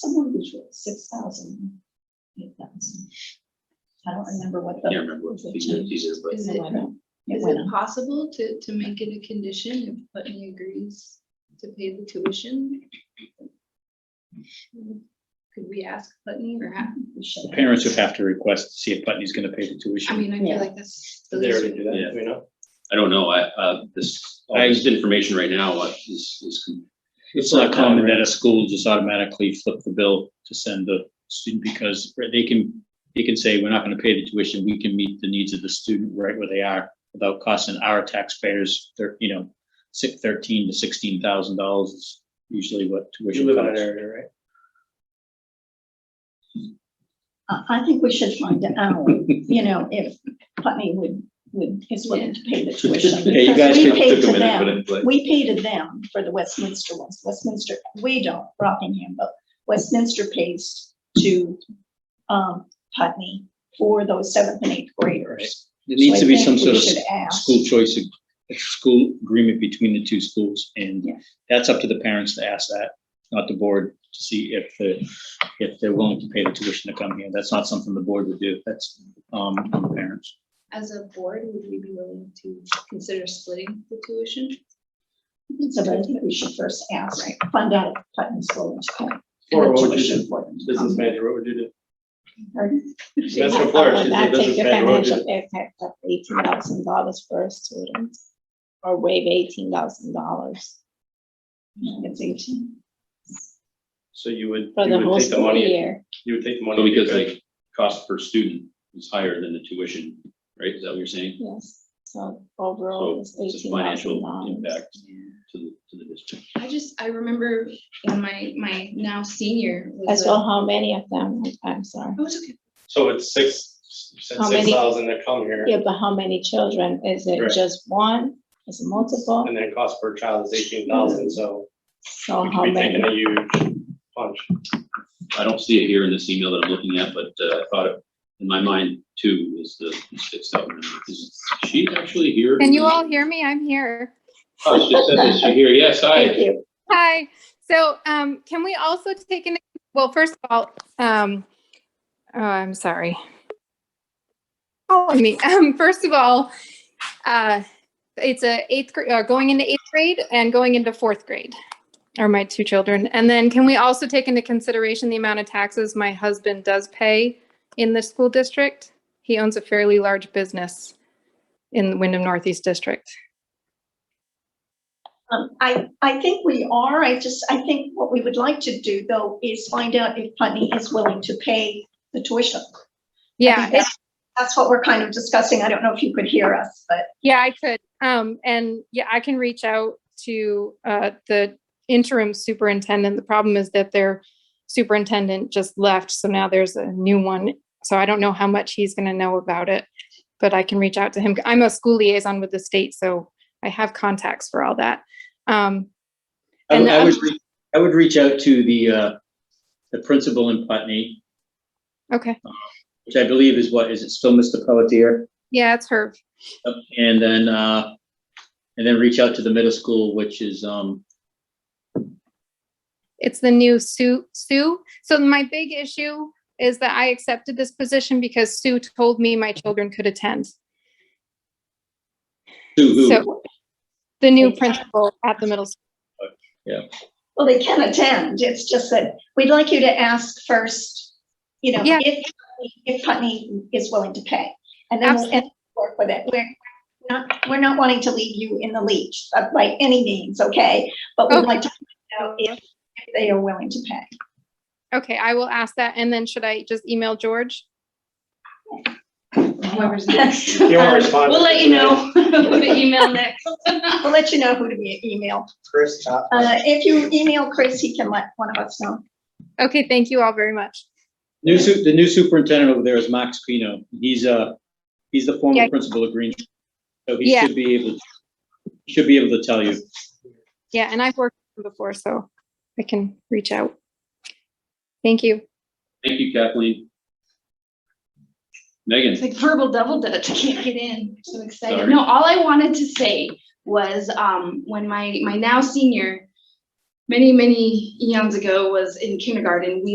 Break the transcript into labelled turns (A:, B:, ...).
A: Someone was six thousand, eight thousand. I don't remember what the.
B: Can't remember what the figure is, but
C: Is
A: It
C: it,
A: went up. It
C: is
A: went
C: it
A: up.
C: possible to, to make it a condition if Putney agrees to pay the tuition? Could we ask Putney or have,
A: We should
D: The
A: have.
D: Parents would have to request to see if Putney's gonna pay the
C: I
D: tuition.
C: mean, I feel
A: Yeah.
C: like that's. the
E: Did they
C: least
E: already do that,
B: Yeah.
E: Do we know?
B: I don't know, I, uh, this, all this information right now uh, is, is.
D: It's not common that a school just automatically flip the bill to send the student because they can, they can say, we're not gonna pay the tuition. We can meet the needs of the student right where they are without costing our taxpayers, thir- you know, six, thirteen to sixteen thousand dollars is usually what
E: You
D: tuition
E: live in an
D: costs.
E: area, right?
A: I, I think we should find out, you know, if Putney would, would, is willing to pay the tuition.
D: Yeah, you
A: because
D: guys
A: we
D: could-
A: paid
B: Took a
A: to
B: minute,
A: them.
B: but it- but
A: We pay to them for the Westminster ones, Westminster, we don't, Rockingham, but Westminster pays to, um, Putney for those seventh and eighth graders.
D: There needs to be some sort of
A: So I think we should ask.
D: school choice, ag- a school agreement between the two schools, and
A: Yeah.
D: that's up to the parents to ask that, not the board, to see if the, if they're willing to pay the tuition to come here. That's not something the board would do, that's, um, on the parents.
C: As a board, would we be willing to consider splitting the tuition?
A: So but I think we should first ask, right, find out if Putney's willing to pay.
E: Or what would you do? Business
A: Business.
E: manager, what would you do? That's
A: I
E: what Flora,
A: would
E: she's a
A: not take
E: business
A: the
E: manager, what would you
A: financial impact of eighteen thousand dollars for a student, or waive eighteen thousand dollars. It's eighteen
E: So you would,
A: for the
E: you
A: whole
E: would take the
A: school
E: money,
A: year.
E: you would take the money.
B: Well, because
E: because-
B: like, cost per student is higher than the tuition, right, is that what you're saying?
A: Yes, so
B: So
A: overall Oh, it's
B: it's a
A: eighteen thousand
B: financial
A: dollars.
B: impact to the, to the district.
C: I just, I remember when my, my now senior was.
A: As
C: a-
A: well, how many of them, I'm sorry,
C: Oh, it's okay.
E: So it's six,
A: How many-
E: six thousand to come here,
A: yeah, but how many children, is it
E: Right.
A: just one, is it multiple,
E: and then cost per child is eighteen thousand, so
A: so
E: we
A: Oh, how
E: could be
A: many?
E: taking a huge punch.
B: I don't see it here in this email that I'm looking at, but uh, I thought it, in my mind, two is the six thousand. Is she actually here?
F: Can you all hear me? I'm here.
B: Oh, she said that she here, yes,
A: Thank
B: I,
A: you.
F: Hi. So um, can we also take in, well, first of all, um, oh, I'm sorry. Oh, I mean, um, first of all, uh, it's a eighth grade, uh, going into eighth grade and going into fourth grade are my two children. And then can we also take into consideration the amount of taxes my husband does pay in the school district? He owns a fairly large business in the Wyndham Northeast District.
A: Um, I, I think we are. I just, I think what we would like to do though is find out if Putney is willing to pay the tuition. I think
F: Yeah, it's-
A: that's- That's what we're kind of discussing. I don't know if you could hear us, but
F: Yeah, I could. Um, and yeah, I can reach out to, uh, the interim superintendent. The problem is that their superintendent just left, so now there's a new one. So I don't know how much he's gonna know about it, but I can reach out to him. I'm a school liaison with the state, so I have contacts for all that. Um,
D: I
F: And
D: would, I would,
F: I'm-
D: re- I would reach out to the, uh, the principal in Putney,
F: okay,
D: which I believe is what, is it still Mr. Pelletier?
F: yeah, it's her.
D: Yep, And then, uh, and then reach out to the middle school, which is, um,
F: It's the new Sue, Sue. So my big issue is that I accepted this position because Sue told me my children could attend.
D: who, who,
F: So the new principal at the middle school.
A: well, they can attend. It's just that we'd like you to ask first, you know,
F: Yeah.
A: if, if Putney is willing to pay. And then we'll and work with it. We're not, we're not wanting to leave you in the leech uh, by any means, okay? But we'd
F: Okay.
A: like to find out if, if they are willing to pay.
F: Okay, I will ask that. And then should I just email George?
C: Whoever's next.
A: You
E: won't respond.
C: We'll let you know. We'll email next.
A: We'll let you know who to be email.
E: Chris, top.
A: Uh, if you email Chris, he can let one of us know.
F: Okay, thank you all very much.
D: new su, the new superintendent over there is Max Pino. He's, uh, he's the
F: Yeah.
D: former principal of Green. Tree. So he
F: Yeah.
D: should be able, should be able to tell you.
F: Yeah, and I've worked with him before, so I can reach out. Thank you.
B: thank you Kathleen. Megan?
C: It's like verbal double dutch, I can't get in, so excited.
B: Sorry.
C: No, all I wanted to say was, um, when my, my now senior many, many eons ago was in kindergarten, we